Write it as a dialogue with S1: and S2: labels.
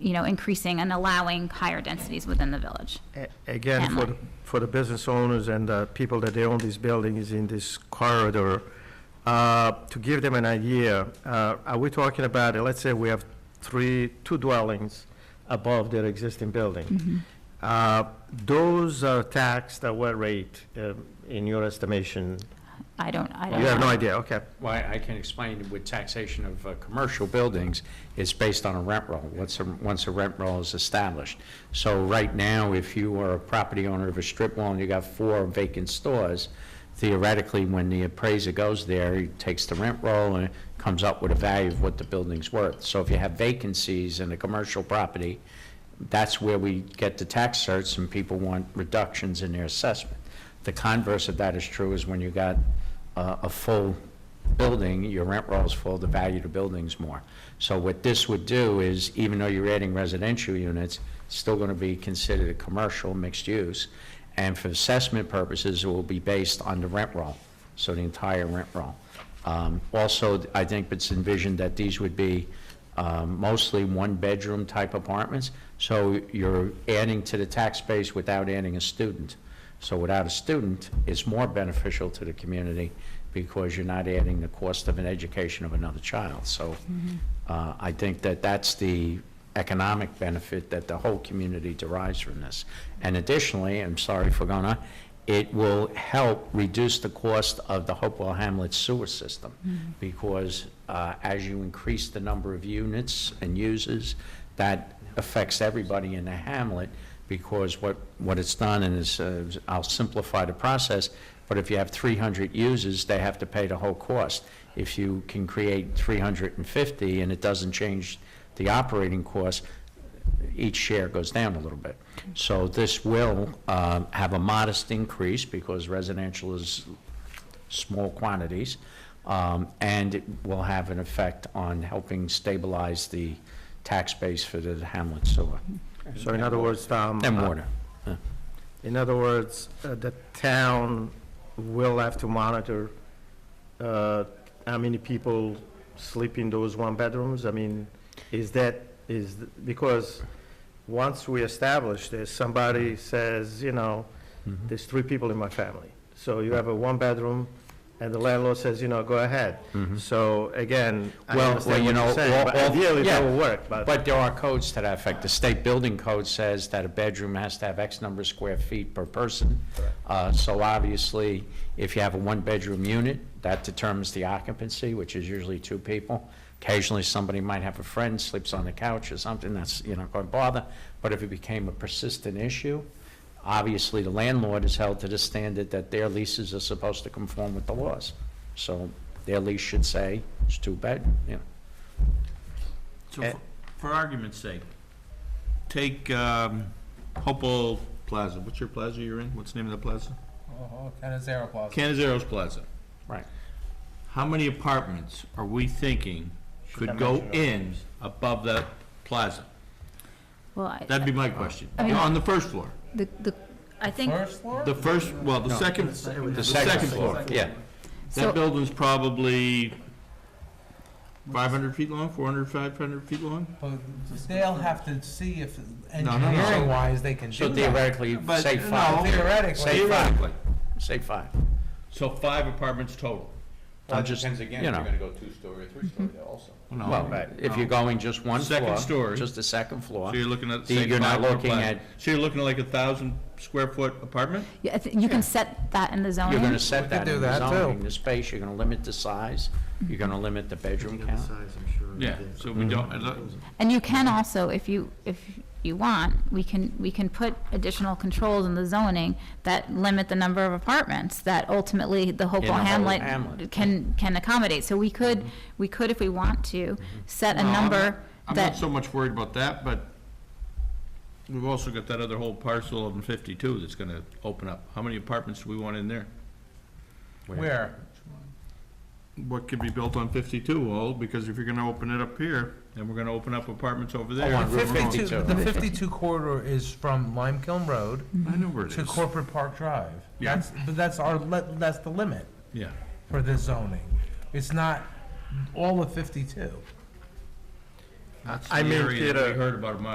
S1: you know, increasing and allowing higher densities within the village.
S2: A- Again, for, the- for the business owners and the people that they own these buildings in this corridor, uh, to give them an idea, uh, are we talking about, uh, let's say we have three, two dwellings above their existing building? Uh, Those are taxed at what rate, um, in your estimation?
S1: I don't, I don't.
S2: You have no
S1: know.
S2: idea, okay.
S3: Why, I can explain with taxation of uh, commercial buildings, it's based on a rent roll, once a, once a rent roll is established. So right now, if you are a property owner of a strip mall and you got four vacant stores, theoretically, when the appraiser goes there, he takes the rent roll and comes up with a value of what the building's worth. So if you have vacancies in a commercial property, that's where we get the tax certs and people want reductions in their assessment. The converse of that is true is when you got uh, a full building, your rent roll's full, the value of the building's more. So what this would do is, even though you're adding residential units, it's still going to be considered a commercial mixed use. And for assessment purposes, it will be based on the rent roll, so the entire rent roll. Um, Also, I think it's envisioned that these would be um, mostly one-bedroom type apartments, so you're adding to the tax base without adding a student. So without a student, it's more beneficial to the community because you're not adding the cost of an education of another child. So uh, I think that that's the economic benefit that the whole community derives from this. And additionally, I'm sorry for going on, it will help reduce the cost of the Hopewell Hamlet sewer system because uh, as you increase the number of units and users, that affects everybody in the hamlet because what, what it's done is, uh, I'll simplify the process, but if you have 300 users, they have to pay the whole cost. If you can create 350 and it doesn't change the operating cost, each share goes down a little bit. So this will um, have a modest increase because residential is small quantities, um, and it will have an effect on helping stabilize the tax base for the Hamlet sewer
S2: So in other words, um.
S3: and
S2: uh,
S3: water.
S2: In other words, uh, the town will have to monitor uh, how many people sleep in those one bedrooms? I mean, is that, is, th- because once we establish this, somebody
S3: Mm-hmm.
S2: says, you know, there's three people in my family. So you have a one bedroom and the landlord says, you know, go ahead. So again, I
S3: Mm-hmm. Well, well,
S2: understand
S3: you
S2: what
S3: know,
S2: you're saying,
S3: all-
S2: but
S3: all-
S2: ideally
S3: yeah.
S2: that will work, but
S3: But there are codes to that effect. The state building code says that a bedroom has to have X number of square feet per person. Uh, So obviously, if you have a one-bedroom unit, that determines the occupancy, which is usually two people. Occasionally, somebody might have a friend, sleeps on the couch or something, that's, you know, going to bother. But if it became a persistent issue, obviously, the landlord is held to the standard that their leases are supposed to conform with the laws. So their lease should say, it's two bed, you know.
S4: So
S2: Eh.
S4: for- for argument's sake, take um, Hopewell Plaza. What's your plaza you're in? What's the name of the plaza?
S5: Oh, Canizero Plaza.
S4: Canizaro's Plaza.
S3: Right.
S4: How many apartments are we thinking
S2: I
S4: could go
S2: mention
S4: in above that plaza?
S1: Well, I-
S4: That'd be my question.
S1: I mean-
S4: On the first floor.
S1: the, the, I think,
S5: First floor?
S4: The first, well, the second, the second floor.
S3: Yeah.
S4: That
S1: so,
S4: building's probably 500 feet long, 400, 500 feet long?
S5: But They'll have to see if
S4: no, no.
S5: engineering wise, they can
S3: So
S5: do that.
S3: theoretically,
S4: But,
S3: say
S4: no,
S3: five.
S5: Theoretically,
S3: Say five,
S4: Theoretically.
S3: say five.
S4: So five apartments total.
S3: I'm just, you
S6: Depends again, if you're
S3: know,
S6: gonna go two-story or three-story though also.
S4: No.
S3: well, if you're going just one floor.
S4: Second story.
S3: Just the second floor.
S4: So you're looking at,
S3: The-
S4: say,
S3: you're not
S4: five per
S3: looking
S4: plaza.
S3: at-
S4: So you're looking at like a thousand square foot apartment?
S1: yeah, I think you can set that in the zoning.
S3: You're gonna set
S5: could
S3: that
S5: do
S3: in the
S5: that, too.
S3: zoning, the space, you're gonna limit the size, you're gonna limit the bedroom count.
S4: Yeah, so we
S3: Mm-hmm.
S4: don't, I don't-
S1: And you can also, if you, if you want, we can, we can put additional controls in the zoning that limit the number of apartments that ultimately the Hopewell
S3: In the whole
S1: Hamlet
S3: hamlet.
S1: can, can accommodate. So we could, we could, if we want to, set a
S4: No, I'm not-
S1: number
S4: I'm not
S1: that,
S4: so much worried about that, but we've also got that other whole parcel of fifty-two that's gonna open up. How many apartments do we want in there?
S5: where?
S4: What could be built on fifty-two, all, because if you're gonna open it up here, then we're gonna open up apartments over there.
S3: on Route
S4: I
S3: 52.
S5: Fifty-two, the fifty-two corridor is from Lime Kiln Road
S4: know where it
S5: to
S4: is.
S5: Corporate Park Drive.
S4: Yeah.
S5: That's, but that's our, li- that's the limit
S4: Yeah.
S5: for this zoning. It's not all of fifty-two.
S4: That's the
S2: I mean,
S4: area that
S2: Peter-
S4: we heard about a mi-